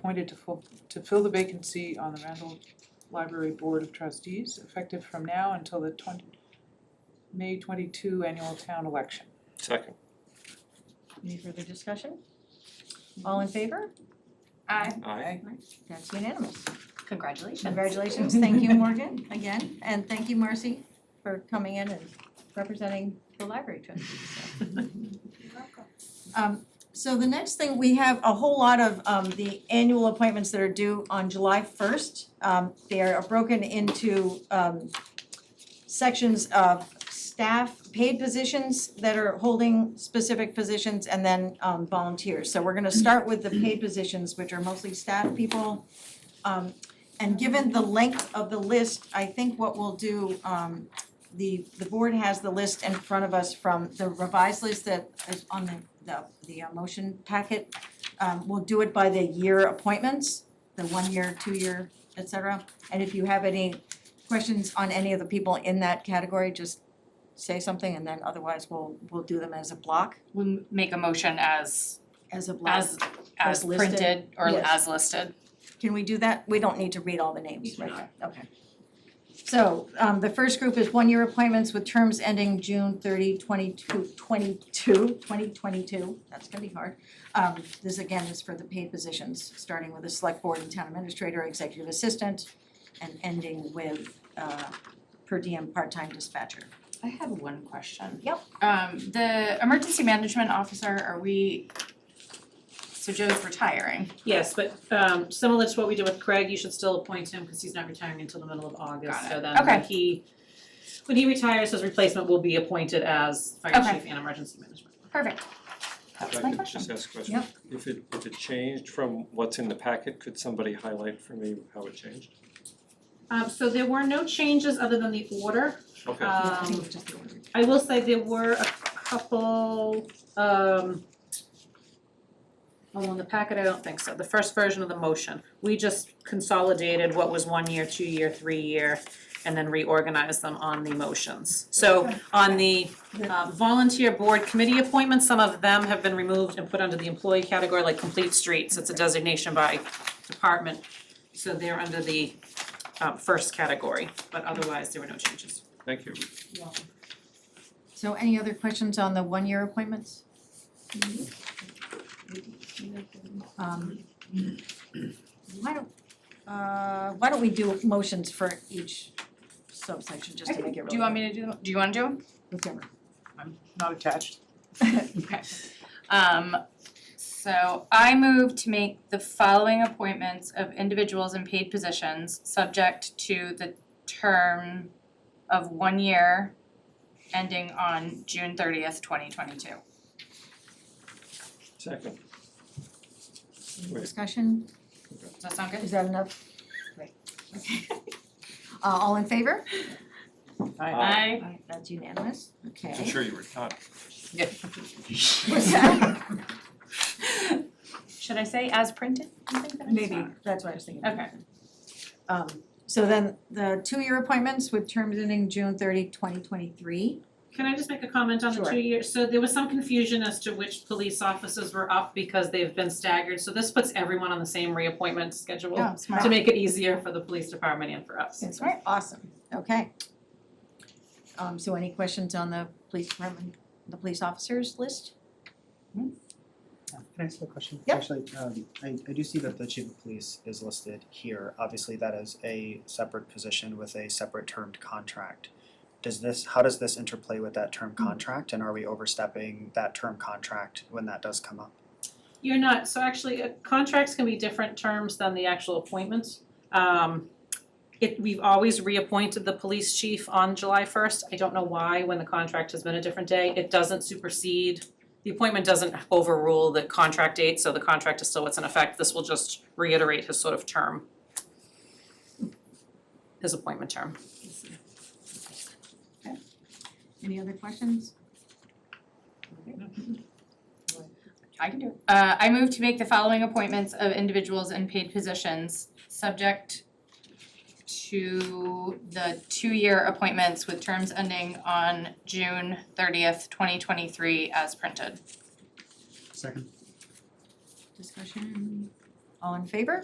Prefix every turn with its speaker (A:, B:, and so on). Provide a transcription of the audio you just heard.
A: appointed to fill, to fill the vacancy on the Randall Library Board of Trustees, effective from now until the twenty, May twenty-two annual town election.
B: Second.
C: Any further discussion? All in favor?
D: Aye.
B: Aye.
C: That's unanimous.
D: Congratulations.
C: Congratulations, thank you, Morgan, again, and thank you, Marcy, for coming in and representing the library trustees. so. Um, so the next thing, we have a whole lot of um the annual appointments that are due on July first. Um, they are broken into um sections of staff, paid positions that are holding specific positions, and then um volunteers. So we're gonna start with the paid positions, which are mostly staff people. Um, and given the length of the list, I think what we'll do, um, the, the board has the list in front of us from the revised list that is on the, the, the uh, motion packet. Um, we'll do it by the year appointments, the one year, two year, et cetera. And if you have any questions on any of the people in that category, just say something and then otherwise we'll, we'll do them as a block,
D: We make a motion as,
C: as a block.
D: as, as
C: As listed.
D: printed or
C: Yes.
D: as listed.
C: Can we do that? We don't need to read all the names,
D: You
C: right?
D: do
C: Okay. So, um, the first group is one-year appointments with terms ending June 30, 22 22, 2022. That's gonna be hard. Um, this again is for the paid positions, starting with the select board and town administrator, executive assistant, and ending with, uh, per diem part-time dispatcher.
D: I had one question.
C: Yep.
D: Um, the emergency management officer, are we, so Joe's retiring,
E: Yes, but um similar to what we did with Craig, you should still appoint him because he's not retiring until the middle of August,
D: Got it.
E: so then when
D: Okay.
E: he when he retires, his replacement will be appointed as fire
D: Okay.
E: chief and emergency management.
D: perfect.
B: If
D: That's
B: I
D: my
B: could
D: question.
B: Just ask a question.
C: Yep.
B: If it, if it changed from what's in the packet, could somebody highlight for me how it changed?
E: Um so there were no changes other than the order.
B: Okay.
D: Uh,
C: I think
E: Um
C: it's just the order.
E: I will say there were a couple, um, oh, in the packet, I don't think so, the first version of the motion, we just consolidated what was one year, two year, three year, and then reorganized them on the motions. So on the uh, volunteer board committee appointments, some of them have been removed and put under the employee category, like complete streets, it's a designation by department. So they're under the, uh, first category, but otherwise, there were no changes.
B: Thank you.
C: So any other questions on the one-year appointments? Um, Why don't, uh, why don't we do motions for each subsection, just to make it really.
D: Do you want me to do, do you wanna do them?
C: Whichever.
A: I'm not attached.
D: Okay. Um, so I move to make the following appointments of individuals in paid positions, subject to the term of one year ending on June thirtieth, twenty twenty-two.
B: Second. Wait,
C: Discussion,
D: Does that sound
C: is
D: good?
C: that enough? Right. Okay. Uh, all in favor?
B: Aye.
C: Alright, That's unanimous, okay.
B: I'm sure you were not.
C: What's that?
D: Should I say as printed? I think that's
C: Maybe,
D: fine.
C: that's what I was thinking.
D: Okay.
C: Um, so then the two-year appointments with terms ending June 30, 2023.
E: Can I just make a comment on the
C: Sure.
E: two years? So there was some confusion as to which police officers were up because they've been staggered, so this puts everyone on the same reappointment schedule
D: Oh,
C: Yeah,
E: to make it easier for the police department and for us.
C: That's right. Awesome, okay. Um, so any questions on the police department, the police officers list?
F: Can I ask a question?
C: Yeah.
F: Actually, um, I, I do see that the chief of police is listed here. Obviously, that is a separate position with a separate termed contract. Does this, how does this interplay with that term contract, and are we overstepping that term contract when that does come up?
E: You're not, so actually, uh, contracts can be different terms than the actual appointments. Um, it, we've always reappointed the police chief on July first. I don't know why, when the contract has been a different day. It doesn't supersede, the appointment doesn't overrule the contract date, so the contract is still what's in effect. This will just reiterate his sort of term. His appointment term.
C: Any other questions?
D: I can do it. Uh, I move to make the following appointments of individuals in paid positions, subject to the two-year appointments with terms ending on June thirtieth, twenty twenty-three as printed.
F: Second.
C: Discussion, All in favor?